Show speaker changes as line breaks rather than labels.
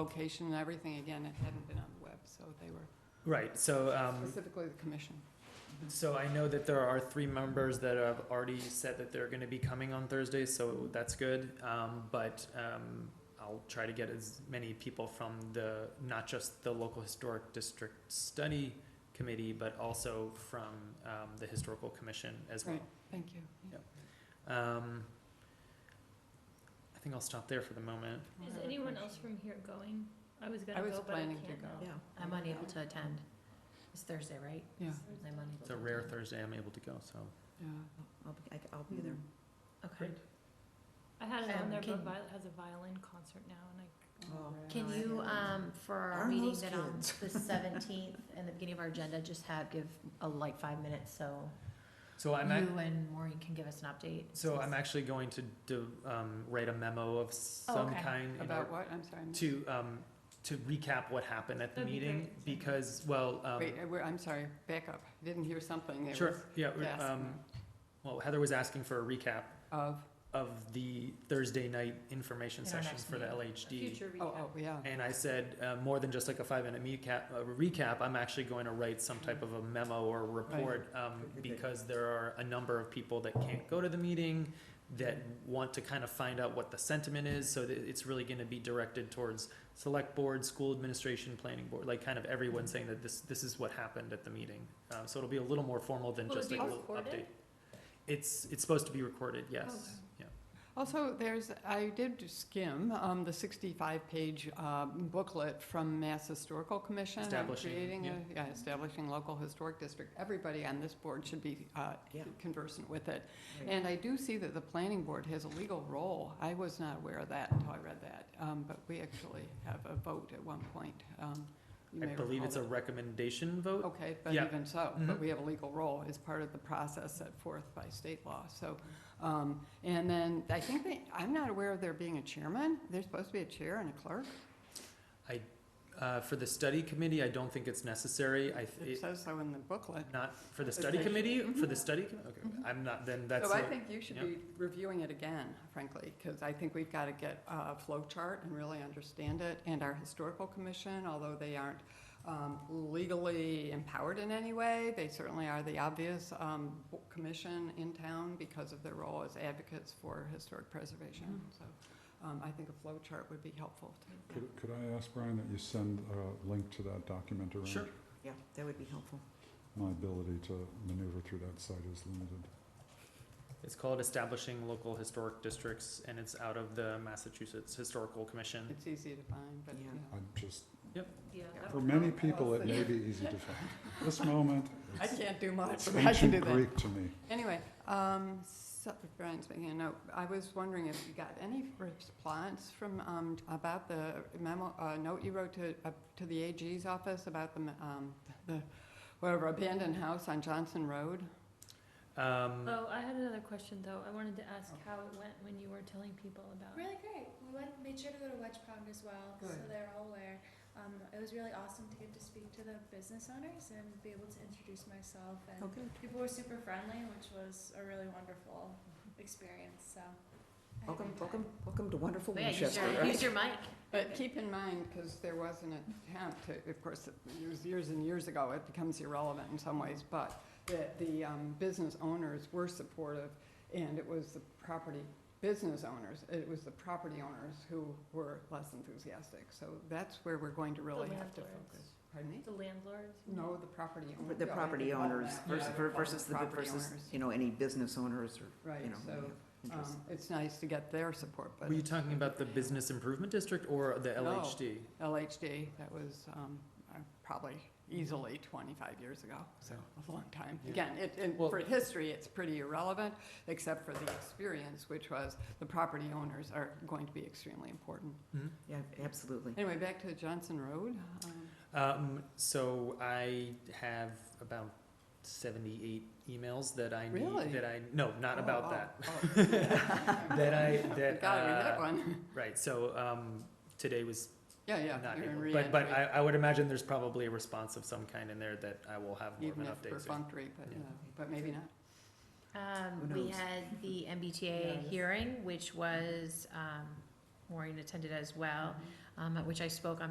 location and everything, again, it hadn't been on the web, so they were
Right, so, um,
specifically the commission.
so I know that there are three members that have already said that they're gonna be coming on Thursday, so that's good. Um, but, um, I'll try to get as many people from the, not just the local historic district study committee, but also from, um, the historical commission as well.
Right. Thank you.
Yep. Um, I think I'll stop there for the moment.
Is anyone else from here going? I was gonna
I was
go, but I
planning to
can't
go.
now.
Yeah, I'm unable to attend. It's Thursday, right?
Yeah,
I'm unable.
It's
to
a rare
attend.
Thursday I'm able to go, so.
yeah.
I'll be, I- I'll be there. Okay.
Great.
I had it on
Um,
there, but
can-
Violet has a violin concert now, and I,
Oh.
Right.
Can you, um, for our
Darn
meeting
those
that on
kids.
the seventeenth and the beginning of our agenda, just have, give a like five minutes so
So
you
I'm, ac-
and Maureen can give us an update.
so I'm actually going to do, um, write a memo of some
Oh, okay.
kind in
About
or-
what? I'm sorry. I'm-
to, um, to recap what happened at the
That'd be
meeting,
great.
because, well, um,
Wait, uh, we're- I'm sorry, back up. I Didn't hear something. There
sure,
was
yeah, we-
gas
um, well, Heather was asking for a recap
Of,
of the Thursday night information
At our
sessions
next
for the
meeting.
LHD.
future recap.
oh, oh, yeah.
And I said, uh, more than just like a five minute recap, uh, recap, I'm actually going to write some type of a memo or report, um,
Good, good, good.
because there are a number of people that can't go to the meeting, that want to kind of find out what the sentiment is, so that it's really gonna be directed towards select board, school administration, planning board, like kind of
Mm-hmm.
everyone saying that this, this is what happened at the meeting. Um, so it'll be a little more formal than
Will it
just
be
like a little
recorded?
update. It's, it's supposed to be recorded, yes, yeah.
Also, there's, I did skim um, the 65-page booklet from Mass Historical Commission. on
Establishing,
creating a- yeah, Establishing local historic district. Everybody on this board should be uh,
Yeah.
conversant with it.
Right.
And I do see that the planning board has a legal role. I was not aware of that until I read that. Um, But we actually have a vote at one point. Um, you
I
may
believe
recall
it's a
that.
recommendation vote,
Okay, but
Yeah.
even so,
Mhm.
but we have a legal role as part of the process set forth by state law, so. um, And then, I think they, I'm not aware of there being a chairman, there's supposed to be a chair and a clerk,
Uh, for the study committee, I don't think it's necessary. I,
it
it,
says so in the booklet.
not for the study committee, for the study, commi- okay, I'm not, then that's.
So Mm-hmm. Oh, I
not-
think you should
yeah.
be reviewing it again, frankly, because I think we've got to get a flow chart and really understand it. And our historical commission, although they aren't um, legally empowered in any way, they certainly are the obvious um, commission in town because of their role as advocates for historic preservation. So um, I think a flow chart would be helpful to
Mm-hmm.
Could, could I ask, Brian, that you send a link to that document around?
Sure.
Yeah, that would be helpful.
My ability to maneuver through that site is limited.
It's called Establishing Local Historic Districts, and it's out of the Massachusetts Historical Commission.
It's easy to find, but, you
Yeah.
know.
I'm just,
Yeah, that
for
would
many
help.
people, it may be easy to find. This moment,
I can't do much,
it's
but I can do
ancient
that.
Greek to me.
Anyway, um, so- Brian's making a note. I was wondering if you got any response from, um, about the memo, uh, note you wrote to, uh, to the AG's office about the, um, the, whatever, abandoned house on Johnson Road?
Um,
Oh, I had another question, though. I wanted to ask how it went when you were telling people about.
Oh. Really great. We went, made sure to go to Wedge Pond as well, so
Good.
they're all aware. Um, it was really awesome to get to speak to the business owners and be able to introduce myself. And
Okay.
people were super friendly, which was a really wonderful experience. So, I had a good
Welcome,
time.
welcome, welcome to wonderful
Yeah, use
Winchester,
your,
right?
use your mic.
But keep in mind, because there was an attempt to, of course, it was years and years ago, it becomes irrelevant in some ways, but that the um, business owners were supportive, and it was the property, business owners, it was the property owners who were less enthusiastic. So that's where we're going to really have to
landlords.
focus. Pardon me?
The landlords?
No, the property owners.
The property owners versus, versus the,
Property
versus,
owners.
you know, any business owners or, you
Right,
know.
so
yeah, interest.
um, it's nice to get their support, but
Were you talking about the Business Improvement District or the
No.
LHD?
LHD, that was um, uh, probably easily 25 years ago, so a long time.
Yeah.
Again, it, and
Well-
for history, it's pretty irrelevant, except for the experience, which was the property owners are going to be extremely important.
Mhm.
Yeah, absolutely.
Anyway, back to Johnson Road. um,
Um, so I have about seventy-eight emails that I
Really?
need, that I, no, not
oh,
about
oh,
that.
oh.
That I, that,
Gotta read that
uh,
one.
right, so, um, today was
Yeah, yeah,
not
you're in
able- But, but I,
reentry,
I would imagine there's probably a response of some kind in there that I will have more of
even
an
if
update soon.
perfunctory, but,
Yeah.
yeah, but maybe not.
Um,
Who
we
knows?
had the
Yeah,
MBTA
this-
hearing, which was, um, Maureen attended as well. um, at which I spoke on